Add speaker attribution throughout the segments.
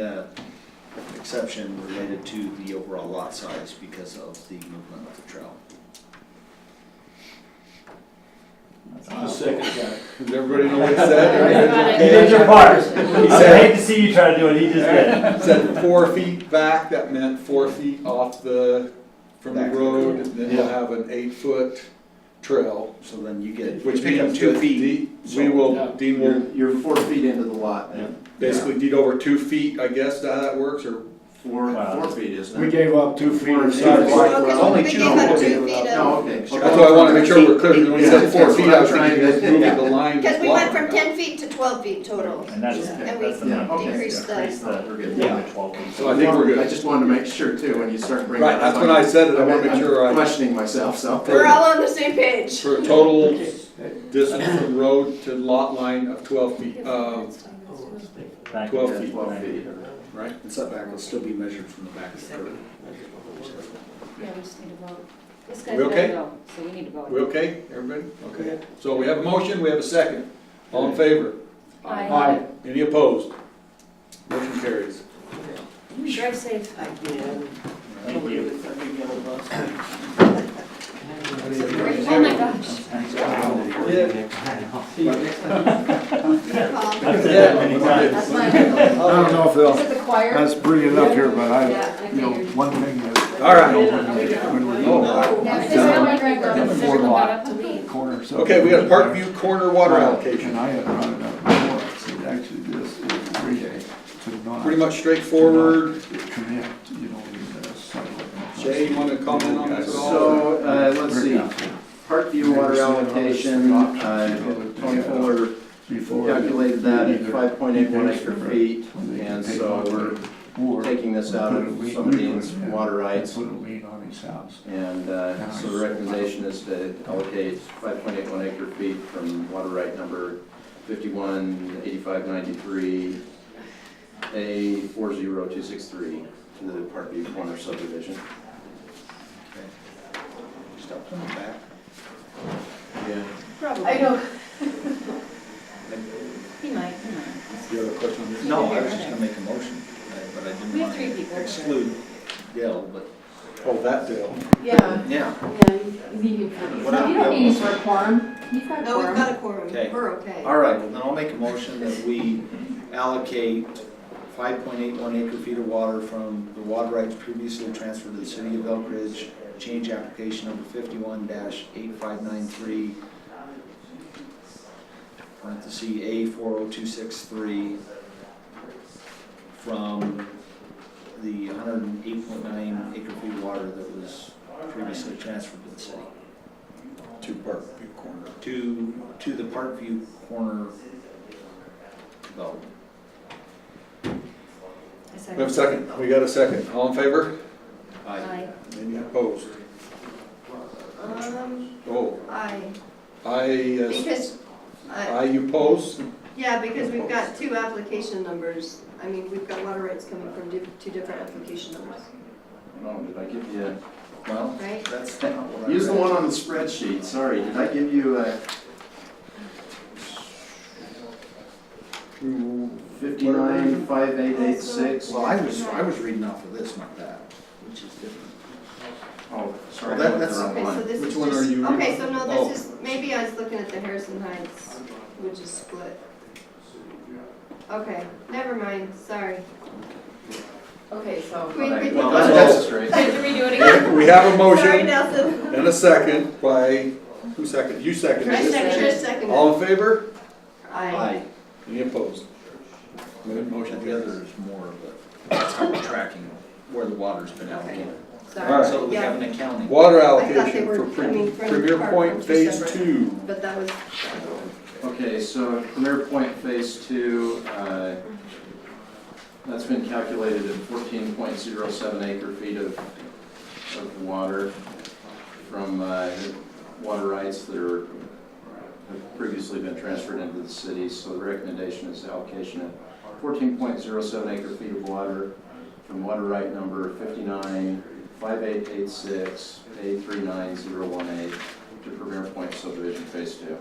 Speaker 1: uh, exception related to the overall lot size because of the movement of the trail.
Speaker 2: The second guy.
Speaker 3: Does everybody know what he said?
Speaker 4: Everybody.
Speaker 3: He did your part. He
Speaker 4: I
Speaker 3: said,
Speaker 4: hate to see you try to do it, he just did.
Speaker 3: said four feet back, that meant four feet off the, from the
Speaker 1: Back.
Speaker 3: road, and then you'll have an eight-foot trail,
Speaker 1: So then you get,
Speaker 3: which
Speaker 1: pick up
Speaker 3: means
Speaker 1: two
Speaker 3: that
Speaker 1: feet.
Speaker 3: the- We will deem your
Speaker 2: You're, you're four feet into the lot now.
Speaker 3: basically deed over two feet, I guess, how that works, or?
Speaker 2: Four,
Speaker 4: Wow.
Speaker 2: four feet, isn't it?
Speaker 5: We gave up two feet
Speaker 2: Four
Speaker 5: of
Speaker 2: feet.
Speaker 5: sidewalk.
Speaker 6: Okay,
Speaker 2: Well,
Speaker 3: only
Speaker 6: we
Speaker 3: two
Speaker 6: gave up
Speaker 3: people
Speaker 6: two
Speaker 3: gave it
Speaker 6: feet
Speaker 2: No,
Speaker 6: of,
Speaker 2: okay.
Speaker 3: That's why I wanna make sure we're clear, because when he said four
Speaker 2: That's
Speaker 3: feet,
Speaker 2: what
Speaker 3: I
Speaker 2: I'm
Speaker 3: was
Speaker 2: trying
Speaker 3: thinking
Speaker 2: to-
Speaker 3: of moving the line.
Speaker 6: because we went from
Speaker 3: block.
Speaker 6: ten feet to twelve feet total.
Speaker 4: And that's,
Speaker 2: Yeah.
Speaker 6: And
Speaker 4: that's the
Speaker 2: Yeah,
Speaker 4: number,
Speaker 2: okay.
Speaker 6: Increase the-
Speaker 4: increase the,
Speaker 2: We're good.
Speaker 4: yeah, twelve feet.
Speaker 3: So I think we're
Speaker 2: I
Speaker 3: good.
Speaker 2: just wanted to make sure too, when you start bringing.
Speaker 3: Right,
Speaker 2: it
Speaker 3: that's
Speaker 2: up,
Speaker 3: when I said it, I wanna
Speaker 2: I'm-
Speaker 3: make sure I,
Speaker 2: I'm Questioning myself, so.
Speaker 6: We're all on the same page.
Speaker 3: for a total distance from road to lot line of twelve feet, uh,
Speaker 4: Back
Speaker 3: 12
Speaker 4: to
Speaker 3: feet.
Speaker 4: 12 feet.
Speaker 3: right?
Speaker 1: And setback will still be measured from the back of the curb.
Speaker 7: Yeah, we just need to vote. This
Speaker 3: We
Speaker 7: guy's
Speaker 3: okay?
Speaker 7: got vote, so we need to vote.
Speaker 3: We okay, everybody? Okay. So we have a motion, we have a second. All in favor?
Speaker 5: Aye.
Speaker 3: Any opposed? Motion carries.
Speaker 7: Drive safe.
Speaker 4: Thank you.
Speaker 7: Oh my gosh.
Speaker 6: Um,
Speaker 4: I've said that many times.
Speaker 7: That's my,
Speaker 5: I don't know if
Speaker 7: is
Speaker 5: they'll,
Speaker 7: it the choir?
Speaker 5: that's bringing it up here, but I,
Speaker 7: Yeah, I
Speaker 5: you know,
Speaker 7: figured.
Speaker 5: one thing that,
Speaker 3: All right, Oh.
Speaker 5: when we
Speaker 7: Now, if this
Speaker 5: go
Speaker 7: family drive up, it's never come back up to me.
Speaker 5: corner. so-
Speaker 3: okay, we got Parkview Corner water allocation.
Speaker 5: And I had brought it up before, I said, actually, this is really to not.
Speaker 3: Pretty much straightforward.
Speaker 5: Connect, you know, with the sidewalk.
Speaker 3: Jay, you wanna comment on this at all?
Speaker 2: So, uh, let's see, Parkview water allocation, uh, Tony Fuller
Speaker 5: Before.
Speaker 2: calculated that at
Speaker 5: either
Speaker 2: five point eight one acre
Speaker 5: either-
Speaker 2: feet,
Speaker 5: when they
Speaker 2: and
Speaker 5: take
Speaker 2: so
Speaker 5: off
Speaker 2: we're
Speaker 5: or
Speaker 2: taking this out
Speaker 5: put
Speaker 2: of
Speaker 5: a
Speaker 2: somebody's
Speaker 5: lien-
Speaker 2: water rights.
Speaker 5: Put a lien on his house.
Speaker 2: And uh, so the recommendation is to allocate 5.81 acre feet from water right number 518593 A 40263 to the Parkview Corner subdivision.
Speaker 1: Stop from the back.
Speaker 2: Yeah.
Speaker 6: probably.
Speaker 7: I know. He might, he might.
Speaker 3: You have a question on this?
Speaker 1: No, I was just gonna make a motion, uh, but I didn't
Speaker 7: We have three
Speaker 1: want
Speaker 7: people.
Speaker 1: to exclude Dale, but
Speaker 3: Oh, that deal.
Speaker 7: Yeah,
Speaker 2: Yeah.
Speaker 7: yeah, you need him for,
Speaker 2: What up,
Speaker 7: so you don't
Speaker 2: Bill?
Speaker 7: need him for a quorum. You've got a
Speaker 6: No, we've
Speaker 7: quorum.
Speaker 6: got a quorum,
Speaker 1: Okay.
Speaker 6: we're okay.
Speaker 1: All right, well, then I'll make a motion that we allocate five point eight one acre feet of water from the water rights previously transferred to the city of Elk Ridge, change application number fifty-one eight five nine three, parentheses, A four oh two six three, from the hundred and eight point nine acre feet of water that was previously transferred to the city
Speaker 3: Two Parkview Corner.
Speaker 1: to, to the Parkview Corner development.
Speaker 7: I
Speaker 3: We have a
Speaker 7: second.
Speaker 3: second, we got a second. All in favor?
Speaker 7: Aye.
Speaker 3: Any opposed?
Speaker 6: Um,
Speaker 3: Oh,
Speaker 6: I,
Speaker 3: I,
Speaker 6: because,
Speaker 3: uh,
Speaker 6: I,
Speaker 3: I, you pose?
Speaker 6: yeah, because we've got two application numbers. I mean, we've got water rights coming from di- two different application numbers,
Speaker 2: No, did I give you,
Speaker 1: Well,
Speaker 6: right?
Speaker 1: that's not what I
Speaker 2: use the
Speaker 1: read.
Speaker 2: one on the spreadsheet, sorry, did I give you uh, fifty-nine five eight eight six?
Speaker 1: Well, I was, I was reading off of this, not that, which is different.
Speaker 2: Oh, sorry,
Speaker 1: Well, that-
Speaker 2: I went the
Speaker 1: that's-
Speaker 2: wrong
Speaker 6: Okay, so
Speaker 2: one.
Speaker 6: this
Speaker 3: Which
Speaker 6: is
Speaker 3: one are
Speaker 6: just,
Speaker 3: you
Speaker 6: okay,
Speaker 3: reading?
Speaker 6: so no,
Speaker 3: Oh.
Speaker 6: this is, maybe I was looking at the Harrison Heights, which is split. Okay, never mind, sorry.
Speaker 7: Okay, so.
Speaker 6: We- we-
Speaker 2: Well, that's that's straight.
Speaker 7: Time to redo it again.
Speaker 3: We have a
Speaker 6: Sorry,
Speaker 3: motion
Speaker 6: Nelson.
Speaker 3: and a second by, who seconded? You seconded
Speaker 6: I
Speaker 3: it.
Speaker 6: second, I second.
Speaker 3: All in favor?
Speaker 6: Aye.
Speaker 3: Any opposed? Motion
Speaker 1: Motion the
Speaker 3: carries.
Speaker 1: other is more of a, that's how we're tracking where the water's been allocated.
Speaker 3: All
Speaker 6: Sorry.
Speaker 3: right.
Speaker 1: So we
Speaker 6: Yeah.
Speaker 1: have an accounting.
Speaker 3: Water
Speaker 6: thought they
Speaker 3: allocation
Speaker 6: were
Speaker 3: for Pre-
Speaker 6: coming from
Speaker 3: Premier
Speaker 6: Park,
Speaker 3: Point
Speaker 6: which is
Speaker 3: Phase
Speaker 6: separate.
Speaker 3: Two.
Speaker 6: But that was,
Speaker 2: Okay, so Premier Point Phase Two, uh, that's been calculated at fourteen point zero seven acre feet of, of water from uh, water rights that are, have previously been transferred into the city. So the recommendation is allocation of fourteen point zero seven acre feet of water from water right number fifty-nine five eight eight six A three nine zero one eight to Premier Point subdivision Phase Two.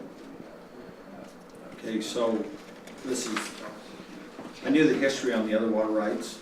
Speaker 1: Okay, so this is I knew the history on the other water rights.